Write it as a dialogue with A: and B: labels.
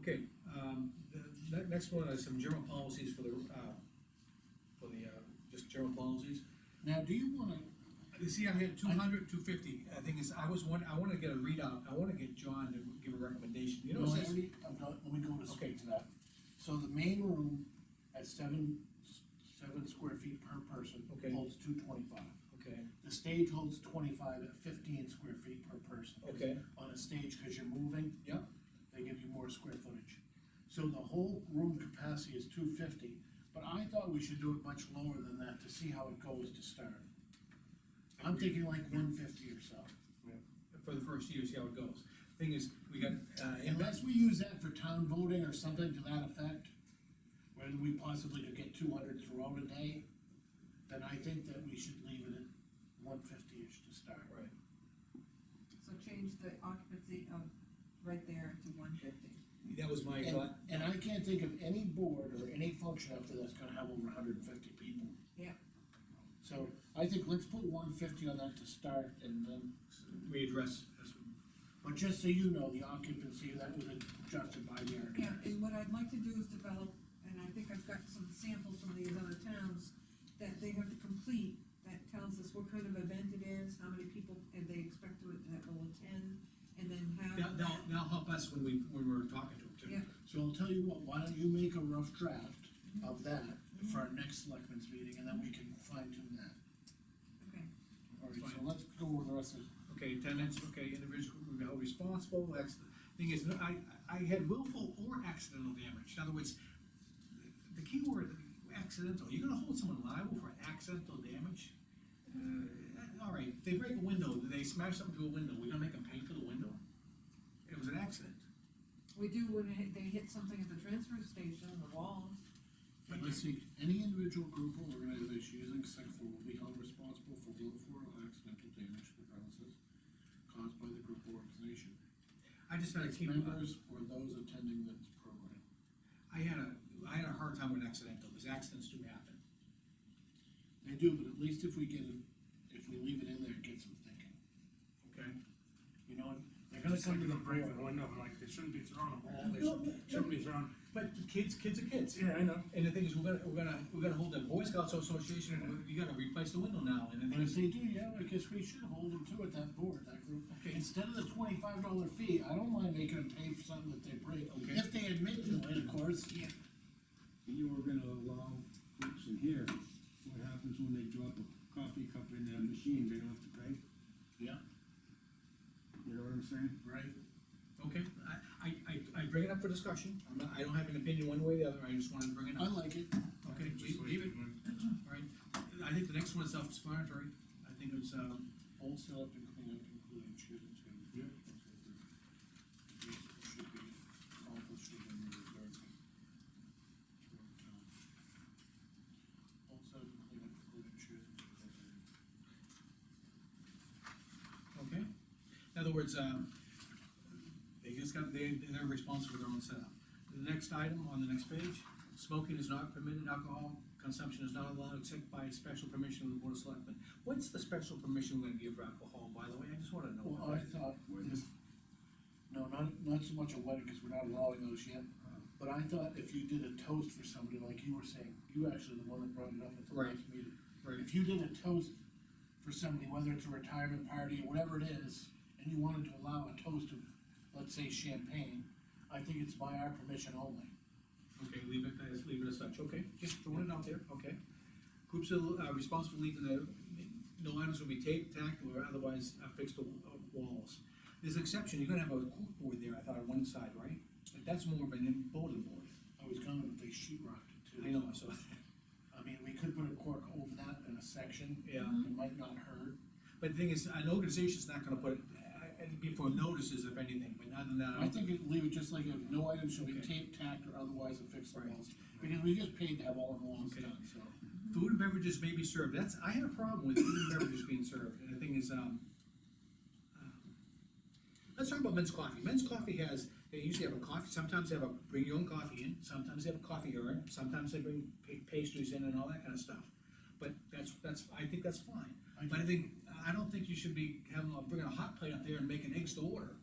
A: Okay, um, the, ne- next one is some general policies for the, uh, for the, uh, just general policies.
B: Now, do you wanna,
A: You see, I had 200, 250. I think is, I was one, I wanna get a readout, I wanna get John to give a recommendation, you know,
B: no,
A: what
B: I
A: it says-
B: already, I've got, let me go to
A: Okay.
B: speak to that. So the main room at seven, seven square feet per person
A: Okay.
B: holds two twenty-five.
A: okay,
B: The stage holds twenty-five at fifteen square feet per person. 'cause
A: Okay.
B: On a stage, cause you're moving.
A: Yeah.
B: They give you more square footage. So the whole room capacity is two fifty, but I thought we should do it much lower than that to see how it goes to start. I'm thinking like one fifty or so,
A: for the first year, see how it goes. Thing is, we got, uh, impact,
B: unless we use that for town voting or something to that effect. Where we possibly could get two hundred throughout a day, then I think that we should leave it at one fifty-ish to start.
A: right,
C: So change the occupancy of right there to one fifty.
A: that was my
B: And,
A: thought,
B: and I can't think of any board or any function out there that's gonna have over hundred and fifty people.
C: Yeah.
B: So I think let's put one fifty on that to start and then,
A: we address this one.
B: but just so you know, the occupancy, that was adjusted by the
C: Yeah,
B: architect.
C: and what I'd like to do is develop, and I think I've got some samples from these other towns, that they have to complete, that tells us what kind of event it is, how many people, and they expect to, that will attend, and then have.
A: That, that'll, that'll help us when we, when we're talking to them, too.
C: Yeah.
B: So I'll tell you what, why don't you make a rough draft of that for our next selectmen's meeting and then we can fine tune that.
C: Okay,
B: Alright, so let's go over the rest of,
A: Okay, attendance, okay, individual who be held responsible, that's, the thing is, I, I had willful or accidental damage, in other words, the key word, accidental, you're gonna hold someone liable for accidental damage? Uh, all right, they break a window, they smash something through a window, we're gonna make them pay for the window? It was an accident,
C: we do when they- they hit something at the transfer station, the walls.
B: but let's see, any individual group or organization using sex four will be held responsible for willful or accidental damage to the premises caused by the group or organization.
A: I just had a
B: Its
A: key,
B: members or those attending this program.
A: I had a, I had a hard time with accidental, because accidents do happen.
B: They do, but at least if we get, it- if we leave it in there, it gets them thinking,
A: Okay.
B: you know, and they're
D: They're
B: gonna
D: just like
B: come to
D: in
B: the
D: the break
B: board.
D: window, like they shouldn't be thrown a ball, they
A: No,
D: shouldn't,
A: no.
D: shouldn't be thrown.
A: But the kids, kids are kids.
D: Yeah, I know.
A: And the thing is, we're gonna, we're gonna, we're gonna hold the Boy Scouts Association, and you gotta replace the window now, and
B: But
A: then,
B: if they do, yeah, I guess we should hold them to it, that board, that group.
A: Okay.
B: Instead of the twenty-five dollar fee, I don't mind making them pay for something that they break,
A: Okay.
B: if they admit to it, of course.
C: Yeah.
E: You were gonna allow groups in here, what happens when they drop a coffee cup in their machine, they don't have to pay,
B: Yeah,
E: you know what I'm saying?
B: right.
A: okay, I, I, I, I bring it up for discussion, I'm not, I don't have an opinion one way or the other, I just wanted to bring it
B: I
A: up.
B: like it.
A: Okay,
D: Just
A: leave
D: like-
A: leave it, alright, I think the next one is self-explanatory, I think it's, um,
B: All set up and clean up, including children too.
D: Yeah.
B: Should be accomplished within the regard. Also, clean up, including children.
A: okay? In other words, um, they just got, they, they're responsible for their own setup. The next item on the next page, smoking is not permitted, alcohol consumption is not allowed except by special permission of the board of selectmen. What's the special permission we're gonna give for alcohol, by the way, I just wanna know.
B: Well, I thought, this- no, not, not so much a wedding, because we're not allowing those yet, but I thought if you did a toast for somebody, like you were saying, you actually the one that brought it up at the
A: Right.
B: last meeting.
A: Right.
B: If you did a toast for somebody, whether it's a retirement party or whatever it is, and you wanted to allow a toast of, let's say champagne, I think it's by our permission only.
A: Okay, leave it, as leave it as such, okay, just throwing it out there, okay. Groups are uh, responsible for leaving the, no items will be taped, tacked, or otherwise affixed to uh, walls. There's an exception, you're gonna have a cork board there, I thought, on one side, right? But that's more of an emboldened board.
B: I was gonna, but they sheet rocked it too.
A: I know, so,
B: I mean, we could put a cork over that in a section.
A: Yeah.
B: It might not hurt.
A: but the thing is, an organization's not gonna put it, uh, it'd be for notices if anything, but other than that,
B: I
A: I don't
B: think it- leave it just like, it, no item shall be
A: Okay.
B: taped, tacked, or otherwise affixed to
A: Right.
B: walls, because we just paid to have all the walls
A: Okay.
B: done, so.
A: Food and beverages may be served, that's, I had a problem with food and beverages being served, and the thing is, um, um, let's talk about men's coffee, men's coffee has, they usually have a coffee, sometimes they have a bring your own coffee in, sometimes they have a coffee urn, sometimes they bring pa- pastries in and all that kind of stuff. But that's, that's, I think that's fine,
B: I
A: but I think, I don't think you should be having, bringing a hot plate up there and making eggs to order.